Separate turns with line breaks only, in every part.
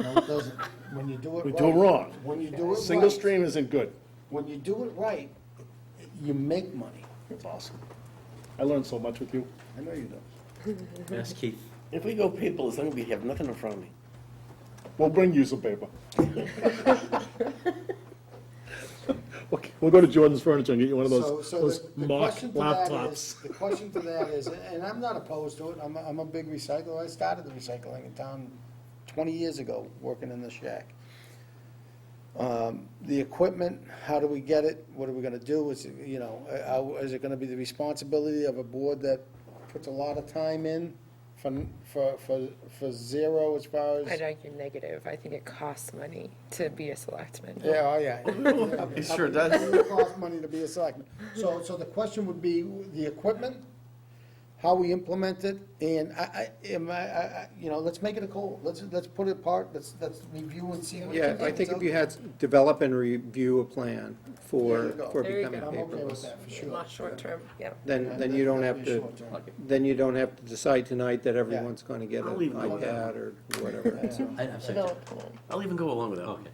No, it doesn't. When you do it right.
We do it wrong.
When you do it right.
Single stream isn't good.
When you do it right, you make money.
It's awesome. I learned so much with you.
I know you do.
Yes, Keith.
If we go people, as long as we have nothing in front of me.
We'll bring you some paper. Okay, we'll go to Jordan's Furniture and get you one of
So,
those,
so
those
the- the
mock
question to that is,
laptops.
the question to that is, and I'm not opposed to it, I'm, a- I'm a big recycler, I started the recycling in town twenty years ago, working in the shack. Um, the equipment, how do we get it, what are we gonna do, is, it, you know, uh, how- is it gonna be the responsibility of a board that puts a lot of time in for, for, for, for zero as far as?
I'd argue negative. I think it costs money to be a selectman.
Yeah, oh, yeah. It
sure does.
It costs money to be a selectman. So, so the question would be the equipment, how we implement it, and I, I, am I, I, I- you know, let's make it a call. Let's, let's put it apart, let's, let's review and see. what we
Yeah,
can
I
do.
think if you had, develop and review a plan
There
for,
you go.
for
There you
becoming
go.
I'm okay with
paperless,
that, for sure.
Not short term, yeah.
then, then you don't have
Definitely
to,
short term.
then you don't have to decide tonight that everyone's gonna get an
I'll leave it alone.
iPad or whatever. so.
I, I'm sorry.
Develop
Jeff.
plan.
I'll even go along with that.
Okay.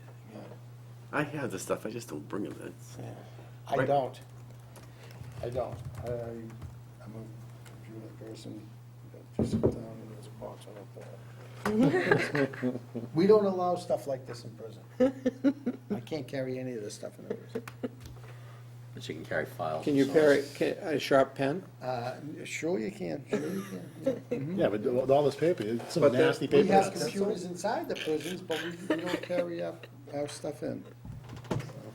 I have the stuff, I just don't bring them. That's-
I don't. I don't. I, I'm a computer person, just sit down and just box on a phone. We don't allow stuff like this in prison. I can't carry any of this stuff in the prison.
But you can carry files.
Can you pair it, can, a sharp pen?
Uh, sure you can, sure you can.
Yeah, but with all this paper, it's some
But the-
nasty
We
paper.
have computers inside the prisons, but we, we don't carry our, our stuff in.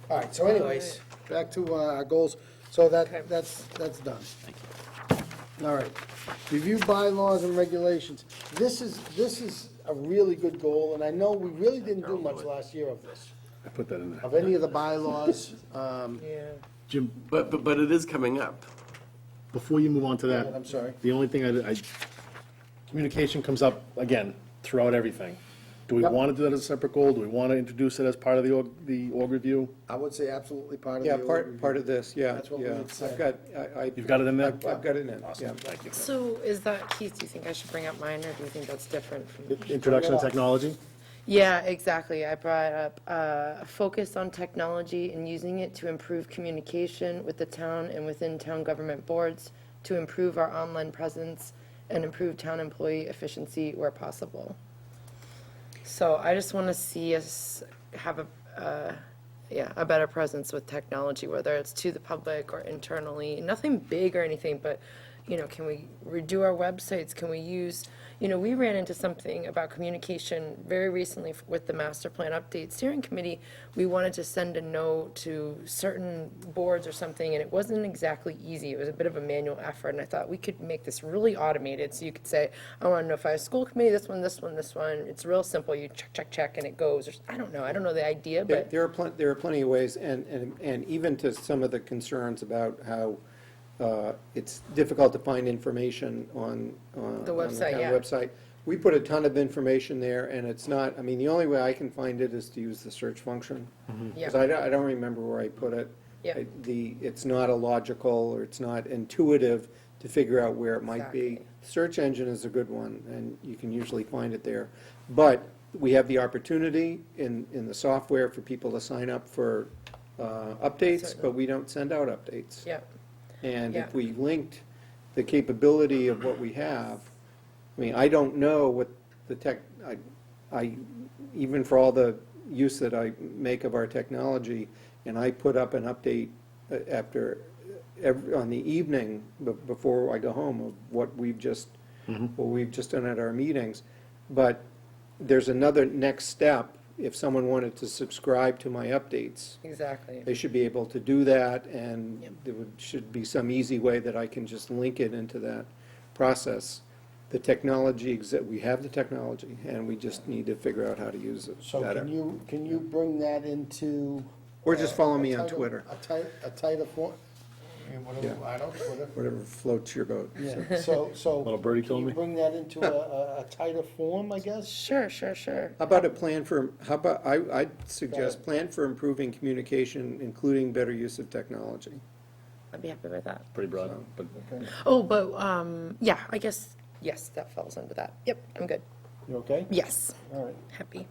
All right, so anyways, back to uh, our goals. So
Okay.
that, that's, that's done. All right. Review bylaws and regulations. This is, this is a really good goal, and I know we really didn't do much last year of this,
I put that in there.
of any of the bylaws. Um,
Yeah.
Jim,
But, but, but it is coming up.
before you move on to that.
I'm sorry.
The only thing I, I, communication comes up again throughout everything. Do we
Yep.
want to do that as a separate goal? Do we want to introduce it as part of the org, the org review?
I would say absolutely part of the.
Yeah, part, part of this, yeah,
That's what we
yeah.
had said.
I've got, I, I.
You've got it in there?
I've I've got it in, yeah.
Thank you.
So is that, Keith, do you think I should bring up mine or do you think that's different from?
Introduction to technology?
Yeah, exactly. I brought up uh, a focus on technology and using it to improve communication with the town and within town government boards, to improve our online presence and improve town employee efficiency where possible. So I just want to see us have a, uh, yeah, a better presence with technology, whether it's to the public or internally, nothing big or anything, but, you know, can we redo our websites? Can we use, you know, we ran into something about communication very recently f- with the master plan update steering committee. We wanted to send a note to certain boards or something, and it wasn't exactly easy. It was a bit of a manual effort, and I thought we could make this really automated, so you could say, I want to notify a school committee, this one, this one, this one. It's real simple. You check, check, check, and it goes. or s- I don't know. I don't know the idea,
There-
but.
There are plenty, there are plenty of ways, and, and, and even to some of the concerns about how uh, it's difficult to find information on, uh, on the
website,
town
yeah.
website. We put a ton of information there, and it's not, I mean, the only way I can find it is to use the search function. Because
Yeah.
I don't, I don't remember where I put it.
Yeah.
I- The, it's not a logical, or it's not intuitive to figure out where it might be.
Exactly.
Search engine is a good one, and you can usually find it there. But we have the opportunity in, in the software for people to sign up for uh, updates, but we don't send out updates.
Yeah,
And
Yeah.
if we linked the capability of what we have, I mean, I don't know what the tech, I, I, even for all the use that I make of our technology, and I put up an update uh, after, every, on the evening, be- before I go home, of what we've just, what we've just done at our meetings. But there's another next step, if someone wanted to subscribe to my updates,
exactly.
they should be able to do that, and there would, should be some easy way that I can just link it into that process. The technology, exi- we have the technology, and we just need to figure out how to use it
So
better.
can you, can you bring that into?
Or just follow me
a
on
tighter-
Twitter.
A tighter, a tighter form, I mean, whatever,
Yeah.
I don't, Twitter.
Whatever floats your boat.
Yeah, so, so.
Little birdie told me.
Can you bring that into a, a- a tighter form, I guess?
Sure, sure, sure.
How about a plan for, how about, I, I'd suggest plan for improving communication, including better use of technology.
I'd be happy with that.
Pretty broad, but
Oh, but, um, yeah, I guess, yes, that falls under that. Yep, I'm good.
You okay?
Yes,
All right.
happy.